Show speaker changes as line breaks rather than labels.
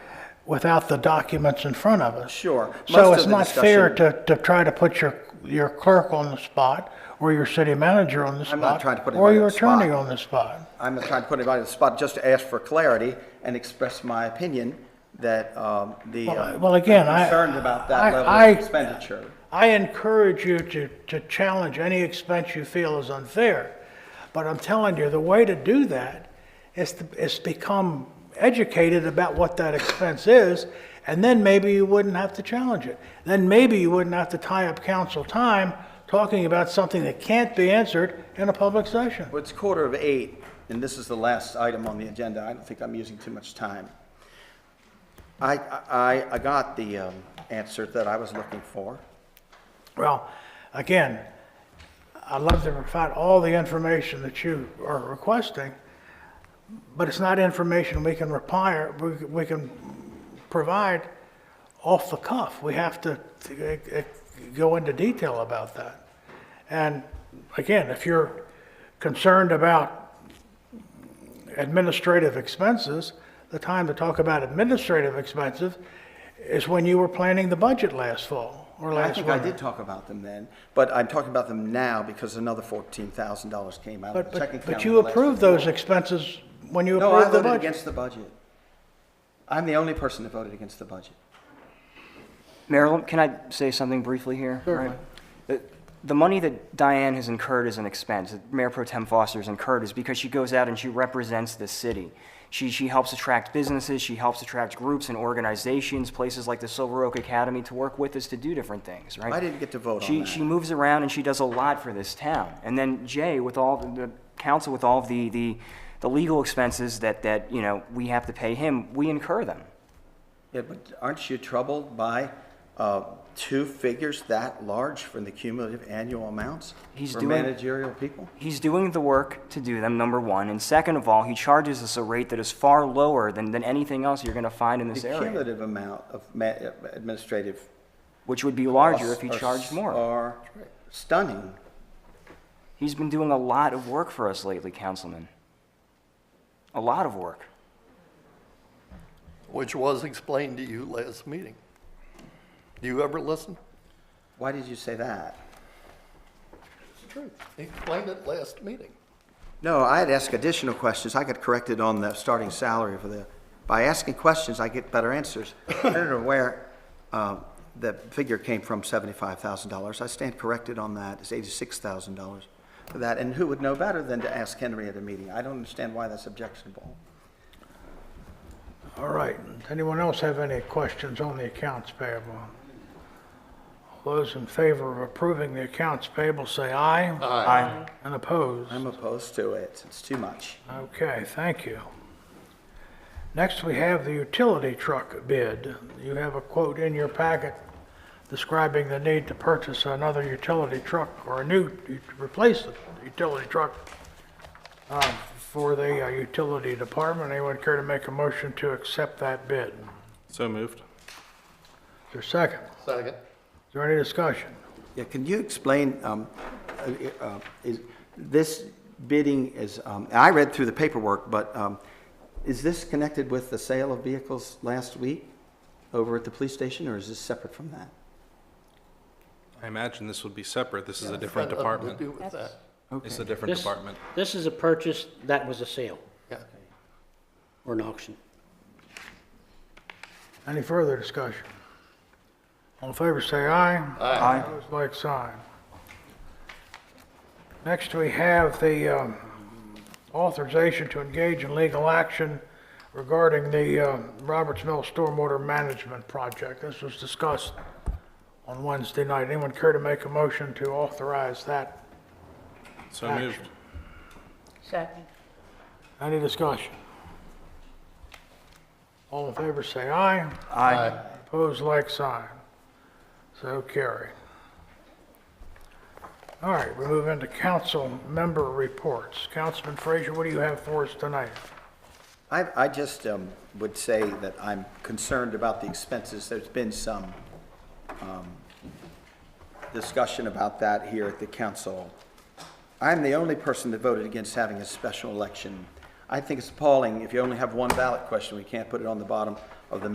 without the documents in front of us.
Sure.
So
Most
it's
of the
not fair
discussion-
to, to try to put your, your clerk on the spot, or your city manager on the spot.
I'm not trying to put
Or
anybody
your
on the spot.
attorney on the spot.
I'm not trying to put anybody on the spot, just to ask for clarity and express my opinion that um, the. uh,
Well, well, again,
I'm
I-
Concerned about that
I-
level
I-
of expenditure.
I encourage you to, to challenge any expense you feel is unfair. But I'm telling you, the way to do that is to, is become educated about what that expense is, and then maybe you wouldn't have to challenge it. Then maybe you wouldn't have to tie up council time talking about something that can't be answered in a public session.
Well, it's quarter of eight, and this is the last item on the agenda. I don't think I'm using too much time. I, I, I got the um, answer that I was looking for.
Well, again, I'd love to provide all the information that you are requesting, but it's not information we can require, we we can provide off the cuff. We have to to, uh, uh, go into detail about that. And again, if you're concerned about administrative expenses, the time to talk about administrative expenses is when you were planning the budget last fall or
I
last
think
winter.
I did talk about them then, but I'm talking about them now because another fourteen thousand dollars came out of
But,
the checking
but,
account.
but
in
you
the last-
approved those expenses when you
No, I
approved the
voted
budget.
against the budget. I'm the only person that voted against the budget.
Marilyn, can I say something briefly here? Right. The- The money that Diane has incurred as an expense, that Mayor Pro Tem Foster has incurred, is because she goes out and she represents this city. She, she helps attract businesses, she helps attract groups and organizations, places like the Silver Oak Academy to work with us to do different things, right?
I didn't get to vote on
She,
that.
she moves around and she does a lot for this town. And then Jay, with all the, the council, with all of the, the, the legal expenses that, that, you know, we have to pay him, we incur them.
Yeah, but aren't you troubled by uh, two figures that large from the cumulative annual amounts?
He's
for
doing-
managerial people?
He's doing the work to do them, number one. And second of all, he charges us a rate that is far lower than, than anything else you're going to find in this
The
area,
cumulative amount of ma- uh, administrative.
which would be larger if he
costs uh,
charged more.
Are stunning.
He's been doing a lot of work for us lately, Councilman. A lot of work.
which was explained to you last meeting. Do you ever listen?
Why did you say that?
It's the truth. He explained it last meeting.
No, I had asked additional questions. I got corrected on the starting salary for the, by asking questions, I get better answers. I don't know where um, the figure came from, $75,000. I stand corrected on that. It's $86,000 for that. And who would know better than to ask Henry at a meeting? I don't understand why that's objectionable.
All right. Anyone else have any questions on the accounts payable? Those in favor of approving the accounts payable say aye.
Aye.
And opposed?
I'm opposed to it. It's too much.
Okay, thank you. Next, we have the utility truck bid. You have a quote in your packet describing the need to purchase another utility truck or a new, to replace the utility truck uh, for the uh, utility department. Anyone care to make a motion to accept that bid? Is
So moved.
there a second?
Second.
Is there any discussion?
Yeah, can you explain, um, uh, uh, is, this bidding is, um, I read through the paperwork, but, um, is this connected with the sale of vehicles last week over at the police station, or is this separate from that?
I imagine this would be separate. This is a different
Had nothing to
department.
do with that.
It's a different
This-
department.
This is a purchase that was a sale
Yeah.
or an auction.
Any further discussion? All in favor, say aye.
Aye.
Opposed, like sign. Next, we have the um, authorization to engage in legal action regarding the um, Roberts Mill Stormwater Management Project. This was discussed on Wednesday night. Anyone care to make a motion to authorize that?
So
Action.
moved.
Second.
Any discussion? All in favor, say aye.
Aye.
Opposed, like sign. So carry. All right, we move into council member reports. Councilman Frazier, what do you have for us tonight?
I, I just um, would say that I'm concerned about the expenses. There's been some um, discussion about that here at the council. I'm the only person that voted against having a special election. I think it's appalling, if you only have one ballot question, we can't put it on the bottom